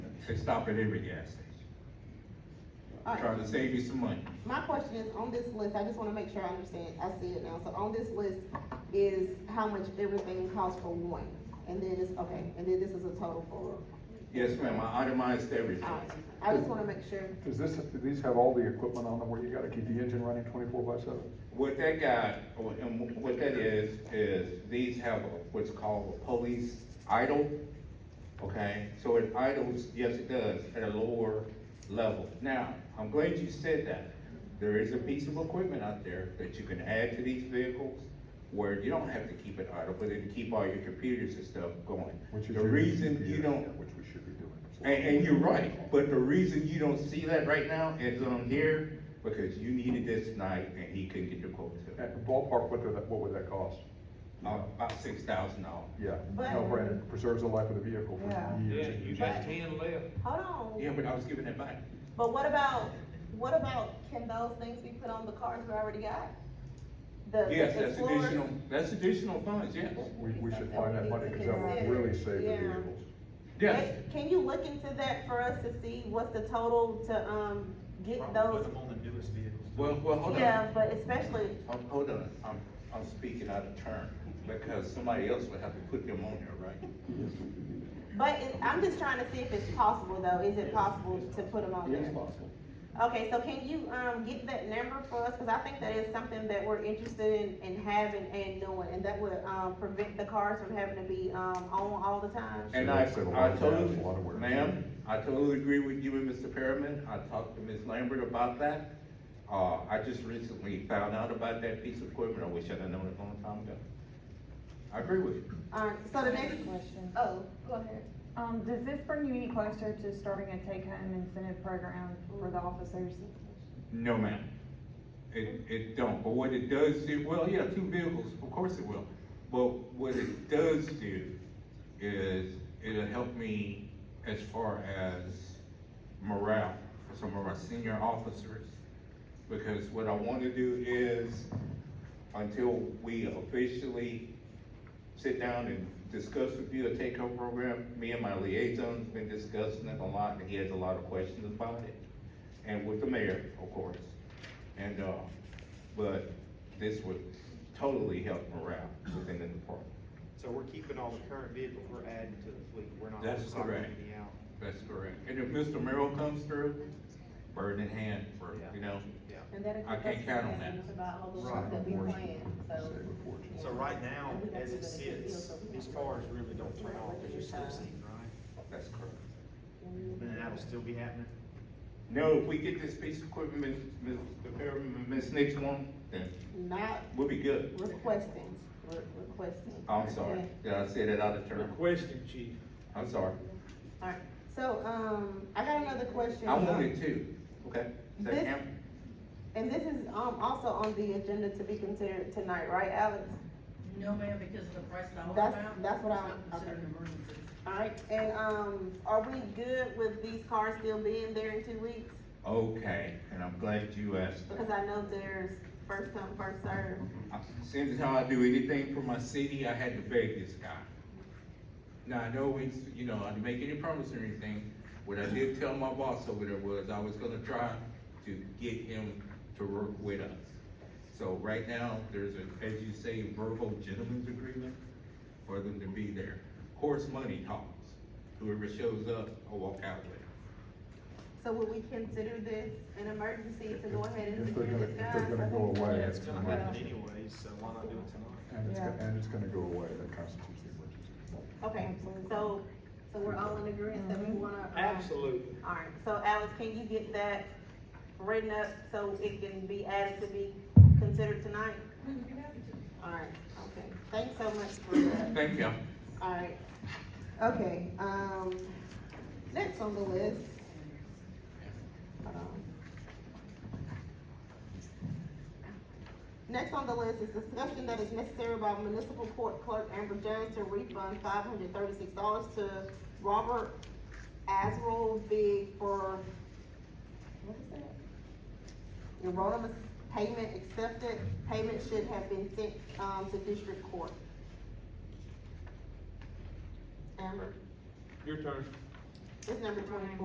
They stop at every gas station, All right. trying to save you some money. My question is, on this list, I just wanna make sure I understand, I see it now, so on this list is how much everything costs for one, and then it's, okay, and then this is a total for, Yes, ma'am, I itemized everything. alright, I just wanna make sure, Does this, do these have all the equipment on them where you gotta keep the engine running twenty-four by seven? What that got, or- and what that is, is these have a- what's called a police idle, okay? So it idles, yes, it does, at a lower level. Now, I'm glad you said that. There is a piece of equipment out there that you can add to these vehicles where you don't have to keep it idle, but it can keep all your computers and stuff going. Which is The your- reason you yeah, don't, Which we should be doing. and, and you're right, but the reason you don't see that right now is on here, because you needed this night and he couldn't get your quote to it. At the ballpark, what did that, what would that cost? Uh, About six thousand dollars. Yeah, But- no brainer, preserves the life of the vehicle Yeah. for Yeah, years. and you years. got ten left. hold on, Yeah, but I was giving it back. but what about, what about, can those things be put on the cars we already got? The the Yes, that's Explorers? additional, that's additional funds, yes. We, we should find that money, cause that will really save the Yeah. vehicles. Yes, Can- Can you look into that for us to see what's the total to, um, get Probably put those? them on the newest vehicles. well, well, hold Yeah, on. but especially, Um, hold on, I'm, I'm speaking out of turn, because somebody else would have to put them on there, right? But it, I'm just trying to see if it's possible though, is it possible to put them on there? possible. Okay, so can you, um, get that number for us, cause I think that is something that we're interested in, in having and doing, and that would, um, prevent the cars from having to be, um, on all the time. And So I, that's a I lot of totally, gas, a lot of wear. ma'am, I totally agree with you and Mr. Perriman. I talked to Ms. Lambert about that. Uh, I just recently found out about that piece of equipment. I wish I'd have known it a long time ago. I agree with you. Alright, Uh, so the next, Question. oh, go ahead. Um, does this bring you any closer to starting a take-home incentive program for the officers? No, ma'am. It, it don't, but what it does do, well, yeah, two vehicles, of course it will. But what it does do is it'll help me as far as morale for some of our senior officers. Because what I wanna do is, until we officially sit down and discuss with you a take-home program, me and my liaison's been discussing it a lot, and he has a lot of questions about it and with the mayor, of course. And, uh, but this would totally help morale within the department. So we're keeping all the current vehicles, we're adding to the fleet, we're not That's recycling correct. any out. That's correct. And if Mr. Merrill comes through, bird in hand for, you know, Yeah. And that'll I keep can't us count on from that. asking us About all the Right. ones that we planned, so. Save a fortune. So right now, as it sits, these cars really don't turn off, because you're still seeing, right? that's correct. And that'll still be happening? No, if we get this piece of equipment, Ms., Ms. Perriman, Ms. Nix one, then Not we'll be good. requesting, re- requesting. I'm sorry, Okay. did I say that out of turn? Requesting, chief. I'm sorry. Alright, so, um, I got another question. I wanted two, okay? Is that This- ample? And this is, um, also on the agenda to be considered tonight, right, Alex? No, ma'am, because of the price of the whole That's- amount, that's what it's I- not considered an emergency. Alright, and, um, are we good with these cars still being there in two weeks? Okay, and I'm glad you asked that. Because I know there's first come, first served. I- Seems as how I do anything for my city, I had to beg this guy. Now, I know it's, you know, I didn't make any promise or anything, what I did tell my boss over there was I was gonna try to get him to work with us. So right now, there's a, as you say, verbal gentleman's agreement for them to be there. Of course, money talks, whoever shows up, I walk out with. So would we consider this an emergency to go ahead and If secure they're gonna, this if guy? they're gonna go away, Yeah, it's it's gonna gonna, happen anyways, so why not do it tonight? and it's, Yeah. go- and it's gonna go away, that constitutes the emergency. Okay, so, so we're all in agreement that we wanna. um, Absolutely. Alright, so Alex, can you get that written up so it can be added to be considered tonight? Alright, okay, thanks so much for that, Thank you. alright. Okay, um, next on the list. Hold on. Next on the list is discussion that is necessary by municipal court clerk Amber Jones to refund five hundred thirty-six dollars to Robert Azrell Big for, what is that? Erroneous payment accepted, payment should have been sent, um, to district court. Amber, Your turn. it's number twenty-four.